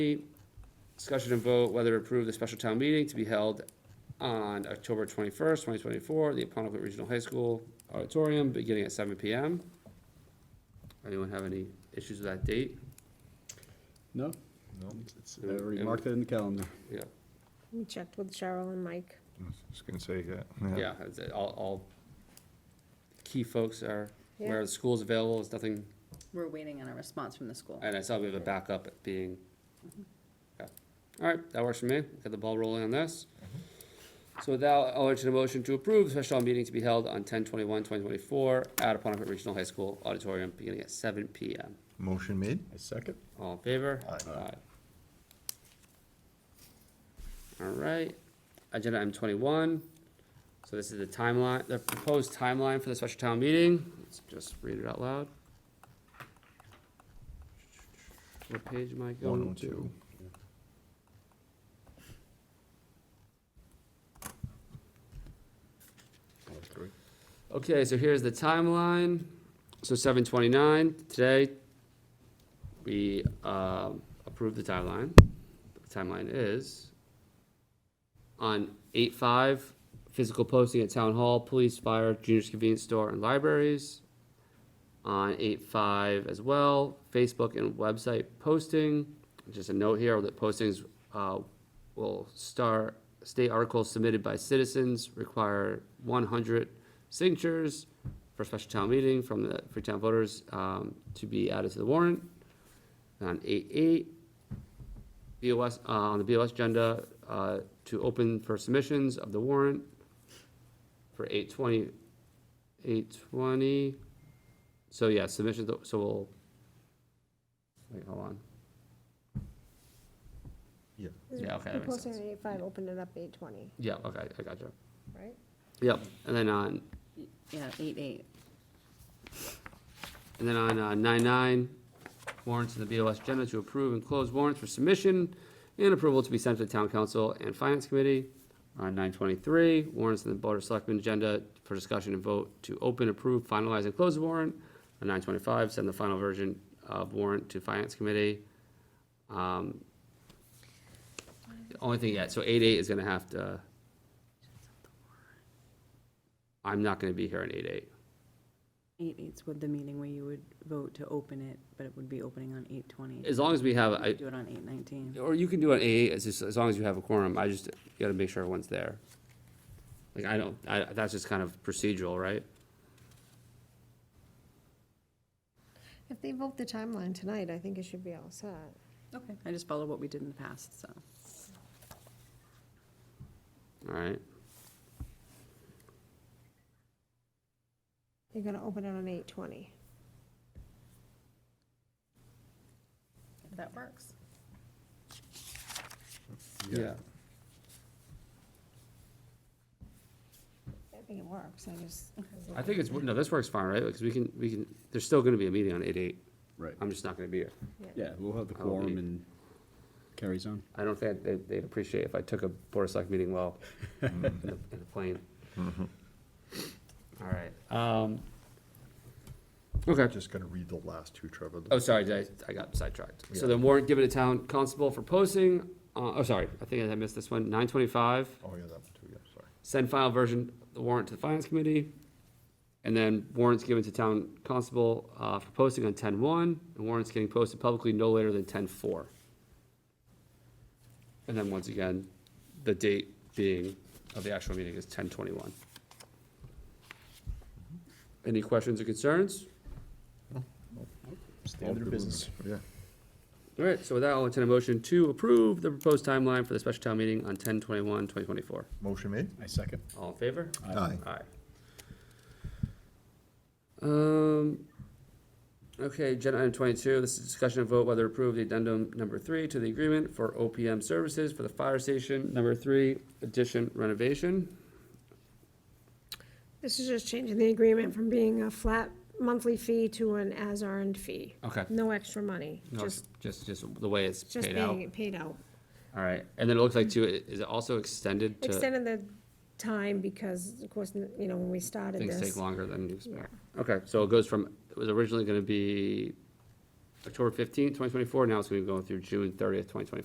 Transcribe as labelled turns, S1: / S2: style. S1: Discussion and vote whether to approve the special town meeting to be held on October twenty-first, twenty twenty-four, the Aponequid Regional High School Auditorium, beginning at seven P M. Anyone have any issues with that date?
S2: No?
S3: No.
S2: It's- I already marked that in the calendar.
S1: Yeah,
S4: We checked with Cheryl and Mike.
S3: I was just gonna say that.
S1: yeah, it's, uh, all, all key folks are,
S4: Yeah.
S1: where the school's available, there's nothing,
S5: We're waiting on a response from the school.
S1: and I saw we have a backup at being. Yeah. All right, that works for me, get the ball rolling on this. So with that, I'll entertain a motion to approve the special town meeting to be held on 10-21-2024 at Aponequid Regional High School Auditorium, beginning at seven P M.
S3: Motion made?
S2: I second.
S1: All in favor?
S3: Aye.
S1: All right, agenda item twenty-one. So this is the timeline, the proposed timeline for the special town meeting. Let's just read it out loud. What page am I
S3: One oh
S1: going to?
S3: two.
S1: Okay, so here's the timeline. So seven twenty-nine, today, we, um, approved the timeline. The Timeline is on eight five, physical posting at town hall, police, fire, junior's convenience store, and libraries. On eight five as well, Facebook and website posting. Just a note here that postings, uh, will start, state articles submitted by citizens require one hundred signatures for special town meeting from the Freetown voters, um, to be added to the warrant. And On eight eight, BOS, uh, on the BOS agenda, uh, to open for submissions of the warrant for eight twenty, eight twenty. So yeah, submissions, so we'll, wait, hold on.
S3: Yeah.
S1: Yeah, okay, that
S4: We
S1: makes
S4: posted
S1: sense.
S4: at eight five, opened it up eight twenty,
S1: Yeah, okay, I gotcha.
S4: right?
S1: Yep, and then on
S5: Yeah, eight, eight.
S1: And then on uh, nine-nine, warrants in the BOS agenda to approve and close warrants for submission and approval to be sent to the town council and finance committee. On nine-twenty-three, warrants in the board of selectmen agenda for discussion and vote to open, approve, finalize, and close the warrant. On nine-twenty-five, send the final version of warrant to finance committee. Um, the Only thing, yeah, so eight-eight is gonna have to. I'm not gonna be here on eight-eight.
S5: Eight, eight's with the meeting where you would vote to open it, but it would be opening on eight twenty.
S1: As long as we have, I,
S5: Do it on eight nineteen.
S1: Or you can do an eight, as, just- as long as you have a quorum, I just gotta make sure everyone's there. Like, I don't, I, that's just kind of procedural, right?
S4: If they vote the timeline tonight, I think it should be all set.
S5: Okay, I just followed what we did in the past, so.
S1: Alright,
S4: You're gonna open it on eight twenty.
S5: If that works.
S1: yeah,
S4: I think it works, I just.
S1: I think it's, no, this works fine, right, because we can, we can, there's still gonna be a meeting on eight eight,
S2: Right.
S1: I'm just not gonna be here.
S2: Yeah, we'll have the
S1: I'll be-
S2: quorum and carries on.
S1: I don't think they'd, they'd appreciate if I took a Board of Select meeting while in the in the plane. Mm-hmm. Alright, um, okay.
S3: Just gonna read the last two, Trevor.
S1: Oh, sorry, did I, I got sidetracked. So
S3: Yeah.
S1: the warrant given to town constable for posting, uh, oh, sorry, I think I missed this one, nine twenty-five,
S3: Oh, yeah, that one too, yeah, sorry.
S1: send file version, of the warrant to the finance committee. And then warrants given to town constable, uh, for posting on ten-one, and warrants getting posted publicly no later than ten-four. And then once again, the date being of the actual meeting is ten-twenty-one. Any questions or concerns?
S3: All
S2: Standard
S3: good
S2: business.
S3: ones, Yeah.
S1: All right, so with that, I'll entertain a motion to approve the proposed timeline for the special town meeting on 10-21-2024.
S3: Motion made?
S2: I second.
S1: All in favor?
S3: Aye.
S1: Aye. Um, okay, agenda item twenty-two, this is discussion and vote whether to approve the addendum number three to the agreement for OPM services for the fire station, number three, addition renovation.
S4: This is just changing the agreement from being a flat monthly fee to an as earned fee.
S1: Okay.
S4: No extra money,
S1: No,
S4: just,
S1: just, just the way it's
S4: just
S1: paid out.
S4: being paid out.
S1: All right, and then it looks like too, i- is it also extended to,
S4: Extended the time because, of course, you know, when we started
S1: things
S4: this.
S1: take longer than you expect?
S4: Yeah.
S1: Okay, so it goes from, it was originally gonna be October fifteenth, twenty twenty-four, now it's gonna be going through June thirtieth, twenty twenty-four.